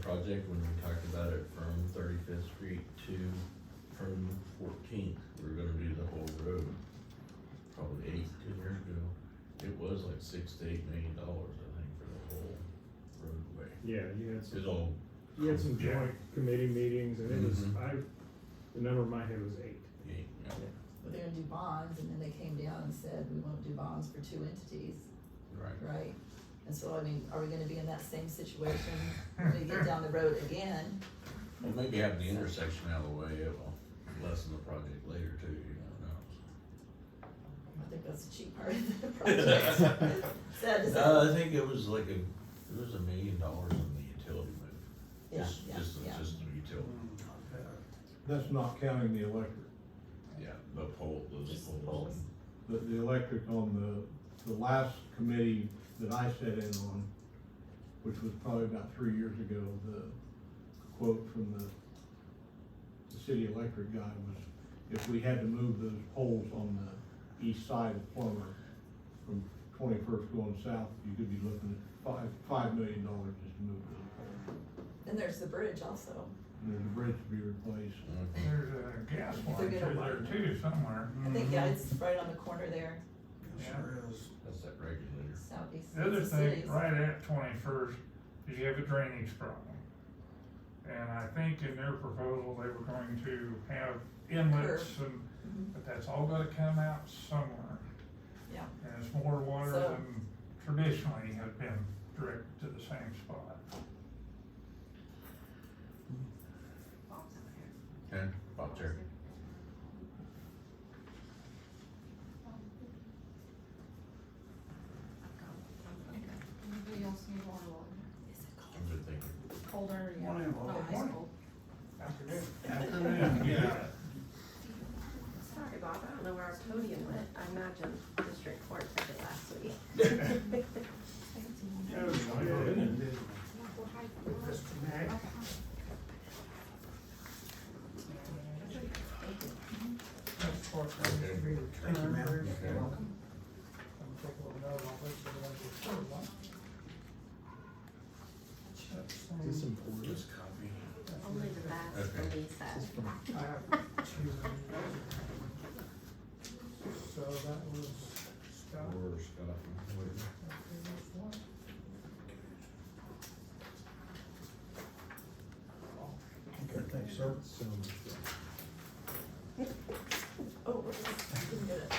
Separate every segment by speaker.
Speaker 1: project when we talked about it from Thirty-Fifth Street to from Fourteenth. We were gonna do the whole road, probably eight, ten years ago. It was like six to eight million dollars, I think, for the whole roadway.
Speaker 2: Yeah, you had
Speaker 1: It was
Speaker 2: some,
Speaker 1: all,
Speaker 2: you had some
Speaker 1: Yeah.
Speaker 2: joint committee meetings and it was,
Speaker 1: Mhm.
Speaker 2: I, the number in my head was eight.
Speaker 1: yeah,
Speaker 3: We're gonna do bonds, and then they came down and said, we won't do bonds for two entities,
Speaker 1: right.
Speaker 3: right? And so, I mean, are we gonna be in that same situation when we get down the road again?
Speaker 1: Well, maybe have the intersection out of the way, it'll lessen the project later too, you don't know.
Speaker 3: I think that's the cheap part of the project. Sad to say.
Speaker 1: Uh, I think it was like a, it was a million dollars on the utility move,
Speaker 3: Yeah,
Speaker 1: just,
Speaker 3: yeah,
Speaker 1: just, the-
Speaker 3: yeah.
Speaker 1: just the utility,
Speaker 4: That's not counting the electric,
Speaker 1: yeah, the pole, those
Speaker 3: Just the
Speaker 1: poles.
Speaker 3: poles.
Speaker 4: but the electric on the, the last committee that I sat in on, which was probably about three years ago, the quote from the, the city electric guy was, if we had to move those poles on the east side of Plummer from twenty-first going south, you could be looking at five, five million dollars just to move those.
Speaker 3: And there's the bridge also.
Speaker 4: And there's a bridge to be replaced.
Speaker 1: Mhm.
Speaker 5: There's a gas
Speaker 3: They're
Speaker 5: line
Speaker 3: gonna
Speaker 5: through there
Speaker 3: widen
Speaker 5: too somewhere.
Speaker 3: I think, yeah,
Speaker 1: Mm-hmm.
Speaker 3: it's right on the corner there,
Speaker 5: Sure
Speaker 6: is.
Speaker 1: That's that regulator.
Speaker 3: southeast.
Speaker 5: The other
Speaker 3: of the cities.
Speaker 5: thing, right at twenty-first, is you have a drainage problem. And I think in their proposal, they were going to have inlets and,
Speaker 3: Mhm.
Speaker 5: but that's all gonna come out somewhere.
Speaker 3: Yeah.
Speaker 5: And it's more water
Speaker 3: So-
Speaker 5: than traditionally has been directed to the same spot.
Speaker 1: Okay, Bob Terry.
Speaker 7: Anybody else need more water?
Speaker 1: I'm good thinking.
Speaker 7: Colder, yeah.
Speaker 6: Morning, Laura.
Speaker 7: Not
Speaker 8: Oh,
Speaker 7: high
Speaker 6: Morning.
Speaker 7: school.
Speaker 5: Afternoon.
Speaker 6: Afternoon, yeah.
Speaker 8: Sorry, Bob, I don't know where our podium went. I imagine District Court took it last week.
Speaker 6: Yeah, we got it in, didn't we? Just today.
Speaker 5: That's what I was
Speaker 1: Okay.
Speaker 5: reading.
Speaker 6: Thank you, ma'am.
Speaker 1: Okay.
Speaker 6: You're welcome.
Speaker 5: I'm taking a note on this, but I just heard one. That's, um,
Speaker 2: Is this important?
Speaker 1: Just copy.
Speaker 8: Only the last
Speaker 1: Okay.
Speaker 8: police that.
Speaker 5: I have two. So that was Scott.
Speaker 1: Or Scott. whatever.
Speaker 6: Okay, thanks, sir.
Speaker 3: Oh, we're just- didn't get it.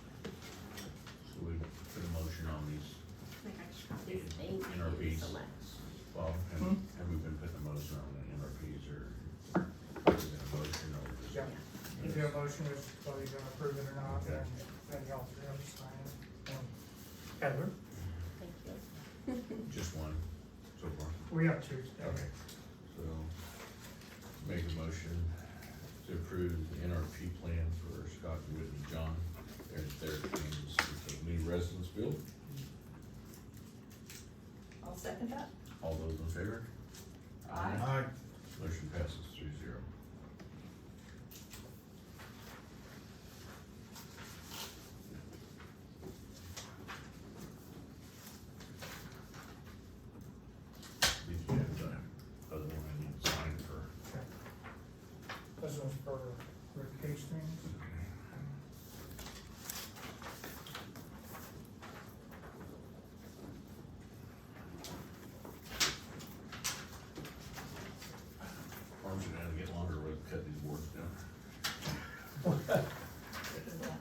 Speaker 1: So we put a motion on these,
Speaker 8: I think I just got these
Speaker 1: Yeah,
Speaker 8: things
Speaker 1: NRVs.
Speaker 8: so much.
Speaker 1: Bob, have, have we been putting a motion on the NRPs or? is it a motion or just-
Speaker 5: Yeah. If you have a motion, if whether you're gonna approve it or not, then, then y'all can understand. Heather,
Speaker 8: Thank you.
Speaker 1: Just one, so far.
Speaker 5: we have two.
Speaker 1: Okay, so make a motion to approve the NRP plan for Scott and Whitney John. Their, their names with the new residence bill.
Speaker 3: I'll second that.
Speaker 1: All those in favor?
Speaker 3: Aye.
Speaker 6: Aye.
Speaker 1: Motion passes three zero. Did you have the other one I need to sign for?
Speaker 5: This one's for Rick Hastings.
Speaker 1: Arms are gonna get longer when we cut these boards down.
Speaker 3: Take it down.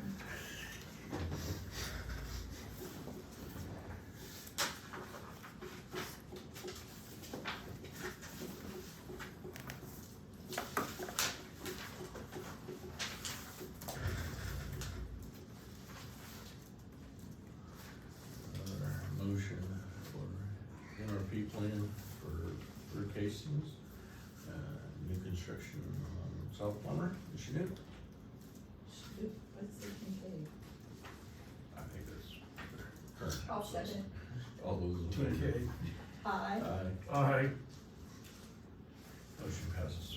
Speaker 1: Another Uh, motion for NRP plan for Rick Hastings, uh, new construction on South Plummer, Michigan.
Speaker 3: Shoot, what's the thing?
Speaker 1: I think that's current.
Speaker 3: I'll second.
Speaker 1: All those in favor?
Speaker 6: Okay.
Speaker 3: Aye.
Speaker 1: Aye.
Speaker 6: Aye.
Speaker 1: Motion passes